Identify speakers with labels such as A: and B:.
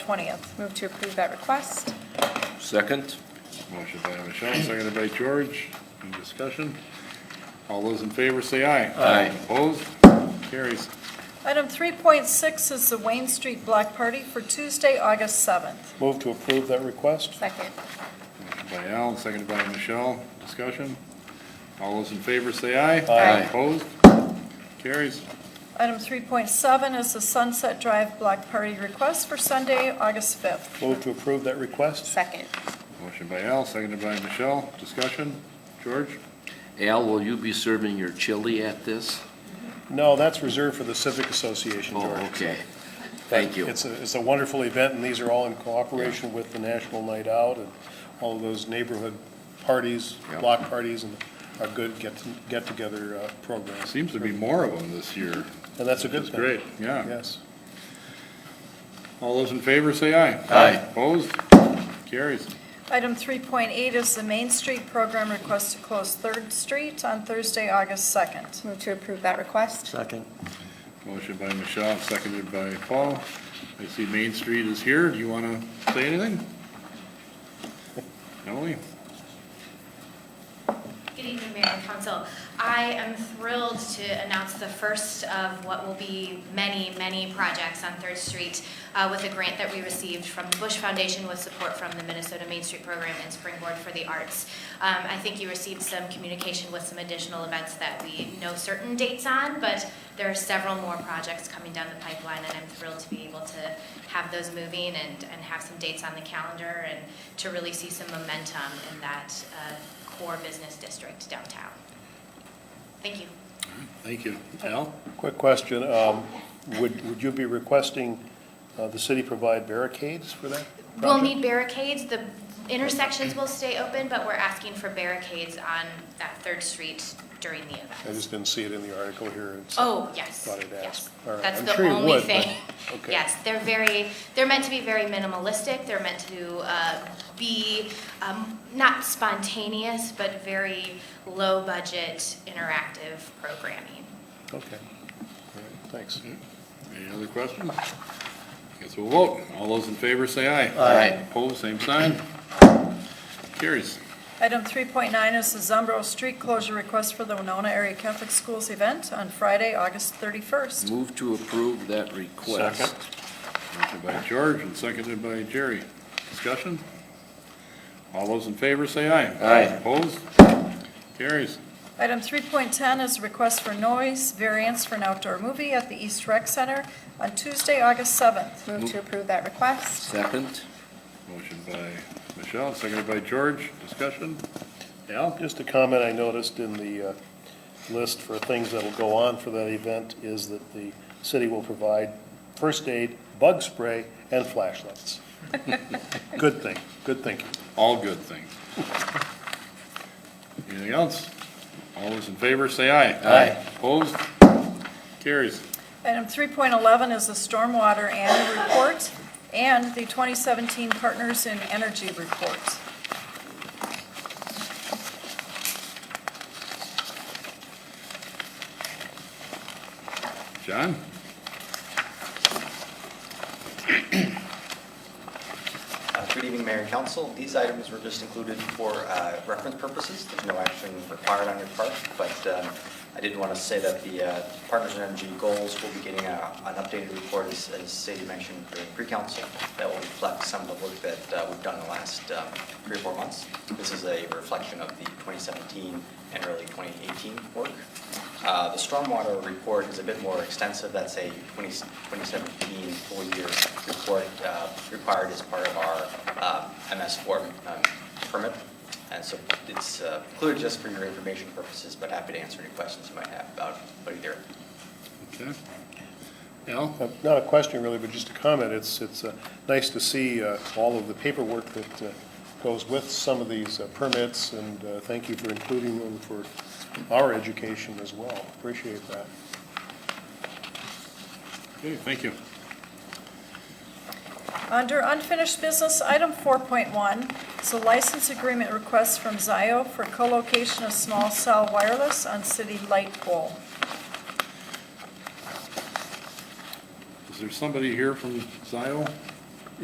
A: 20th. Move to approve that request.
B: Second?
C: Motion by Michelle, seconded by George. Any discussion? All those in favor say aye.
B: Aye.
C: Opposed? Carries.
A: Item 3.6 is the Wayne Street Block Party for Tuesday, August 7th.
D: Move to approve that request?
A: Second.
C: Motion by Al, seconded by Michelle. Discussion? All those in favor say aye.
B: Aye.
C: Opposed? Carries.
A: Item 3.7 is the Sunset Drive Block Party request for Sunday, August 5th.
D: Move to approve that request?
A: Second.
C: Motion by Al, seconded by Michelle. Discussion? George?
B: Al, will you be serving your chili at this?
D: No, that's reserved for the Civic Association,
B: Oh,
D: George.
B: okay. Thank you.
D: It's a, it's a wonderful event, and these are all in cooperation with the National Night Out and all of those neighborhood parties,
B: Yeah.
D: block parties, and our good get, get-together uh, programs.
C: Seems to be more of them this year.
D: And that's a good
C: That's
D: thing.
C: great, yeah.
D: Yes.
C: All those in favor say aye.
B: Aye.
C: Opposed? Carries.
A: Item 3.8 is the Main Street Program request to close Third Street on Thursday, August 2nd.
E: Move to approve that request.
D: Second.
C: Motion by Michelle, seconded by Paul. I see Main Street is here. Do you want to say anything? Emily?
F: Good evening, Mayor and Council. I am thrilled to announce the first of what will be many, many projects on Third Street uh, with a grant that we received from the Bush Foundation with support from the Minnesota Main Street Program and Springboard for the Arts. Um, I think you received some communication with some additional events that we know certain dates on, but there are several more projects coming down the pipeline, and I'm thrilled to be able to have those moving and, and have some dates on the calendar and to really see some momentum in that uh, core business district downtown. Thank you.
C: Thank you. Al?
D: Quick question, um, would, would you be requesting uh, the city provide barricades for that?
F: We'll
D: project?
F: need barricades, the intersections will stay open, but we're asking for barricades on that Third Street during the
D: I
F: event.
D: just didn't see it in the article here. and so-
F: Oh, yes,
D: Thought I'd
F: yes.
D: ask. All right.
F: That's
D: I'm
F: the
D: sure you
F: only
D: would, but-
F: thing.
D: okay.
F: Yes, they're very, they're meant to be very minimalistic, they're meant to uh, be um, not spontaneous, but very low-budget, interactive programming.
D: Okay, all right, thanks.
B: Mm-hmm.
C: Any other questions? Guess we'll vote. All those in favor say aye.
B: Aye.
C: Opposed, same sign. Carries.
A: Item 3.9 is the Zumbro Street closure request for the Winona Area Catholic Schools event on Friday, August 31st.
B: Move to approve that request.
C: Motion by George and seconded by Jerry. Discussion? All those in favor say aye.
B: Aye.
C: Opposed? Carries.
A: Item 3.10 is a request for noise variance for an outdoor movie at the East Rec Center on Tuesday, August 7th.
E: Move to approve that request.
B: Second?
C: Motion by Michelle, seconded by George. Discussion? Al?
D: Just a comment I noticed in the uh, list for things that'll go on for that event is that the city will provide first aid, bug spray, and flashlights. Good thing, good thinking.
C: All good things. Anything else? All those in favor, say aye.
B: Aye.
C: Opposed? Carries.
A: Item 3.11 is the Stormwater Annual Report and the 2017 Partners in Energy Report.
C: John?
G: Uh, Good evening, Mayor and Council. These items were just included for uh, reference purposes. There's no action required on your part, but um, I did want to say that the uh, Partners in Energy goals will be getting a- an updated report, as as Sadie mentioned, for pre-council, that will reflect some of the work that uh, we've done in the last um, three or four months. This is a reflection of the 2017 and early 2018 work. Uh, The stormwater report is a bit more extensive. That's a 20 2017 full-year report uh, required as part of our uh, MS4 um, permit. And so it's uh, included just for your information purposes, but happy to answer any questions you might have about about either
C: Okay. Al?
D: Uh, Not a question really, but just a comment. It's, it's uh, nice to see uh, all of the paperwork that uh, goes with some of these uh, permits, and uh, thank you for including them for our education as well. Appreciate that.
C: Okay, thank you.
A: Under unfinished business, item 4.1 is a license agreement request from Zio for co-location of small cell wireless on city light pole.
C: Is there somebody here from Zio?